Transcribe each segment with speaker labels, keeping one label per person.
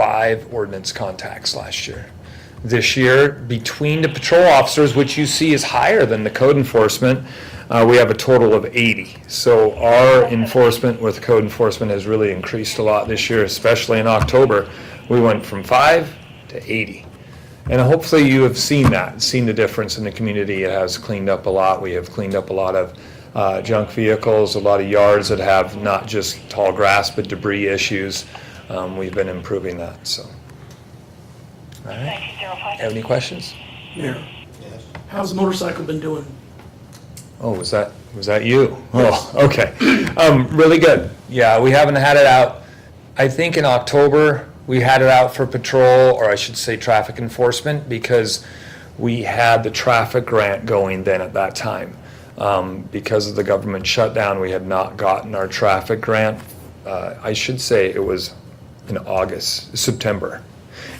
Speaker 1: five ordinance contacts last year. This year, between the patrol officers, which you see is higher than the code enforcement, uh, we have a total of 80. So our enforcement with code enforcement has really increased a lot this year, especially in October. We went from five to 80. And hopefully you have seen that, seen the difference in the community. It has cleaned up a lot. We have cleaned up a lot of uh, junk vehicles, a lot of yards that have not just tall grass, but debris issues. Um, We've been improving that, so. All right,
Speaker 2: Thank you, Sarah Pike.
Speaker 1: have any questions?
Speaker 3: Mayor, how's the motorcycle been doing?
Speaker 1: Oh, was that, was that you? Oh, okay. Um, really good. Yeah, we haven't had it out. I think in October, we had it out for patrol, or I should say traffic enforcement, because we had the traffic grant going then at that time. Um, because of the government shutdown, we had not gotten our traffic grant. Uh, I should say it was in August, September.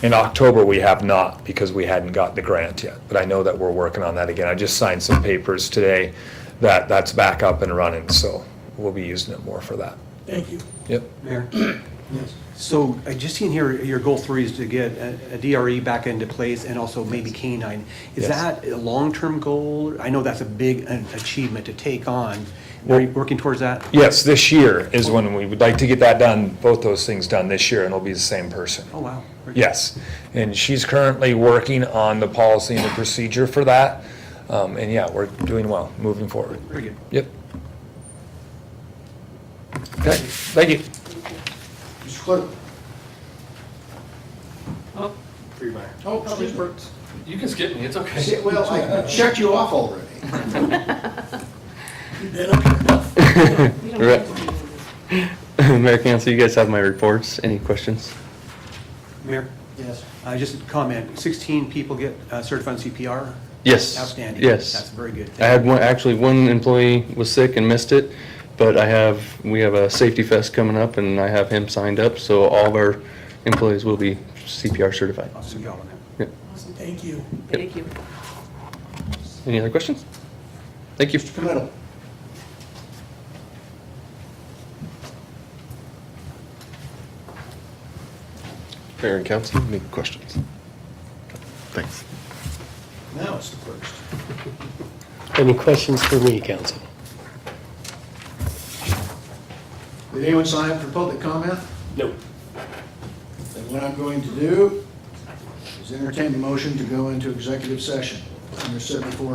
Speaker 1: In October, we have not because we hadn't got the grant yet, but I know that we're working on that again. I just signed some papers today that that's back up and running, so we'll be using it more for that.
Speaker 3: Thank you.
Speaker 1: Yep.
Speaker 4: Mayor? So I just seen here, your goal three is to get a a DRE back into place and also maybe canine.
Speaker 1: Yes.
Speaker 4: Is that a long-term goal? I know that's a big uh, achievement to take on. Are you working towards that?
Speaker 1: Yes, this year is when we would like to get that done, both those things done this year, and it'll be the same person.
Speaker 4: Oh, wow.
Speaker 1: Yes, and she's currently working on the policy and the procedure for that. Um, and yeah, we're doing well, moving forward.
Speaker 4: Very good.
Speaker 1: Yep. Okay, thank you.
Speaker 5: Mr. Clerk.
Speaker 6: Oh,
Speaker 5: Free Meyer.
Speaker 6: Oh, excuse me. You can skip me, it's okay.
Speaker 5: Well, I checked you off already.
Speaker 3: You've been up here enough.
Speaker 7: Mayor Council, you guys have my reports. Any questions?
Speaker 4: Mayor,
Speaker 5: Yes.
Speaker 4: uh, just a comment, 16 people get uh, certified CPR?
Speaker 7: Yes.
Speaker 4: Outstanding.
Speaker 7: Yes.
Speaker 4: That's very good.
Speaker 7: I had one, actually, one employee was sick and missed it, but I have, we have a safety fest coming up and I have him signed up, so all of our employees will be CPR certified.
Speaker 4: Awesome job on that.
Speaker 7: Yeah.
Speaker 3: Thank you.
Speaker 6: Thank you.
Speaker 7: Any other questions? Thank you.
Speaker 5: Committal.
Speaker 8: Mayor and council, any questions? Thanks.
Speaker 5: Now it's the clerk's.
Speaker 9: Any questions for me, council?
Speaker 5: Did anyone sign up for public comment?
Speaker 9: No.
Speaker 5: Then what I'm going to do is entertain the motion to go into executive session under 74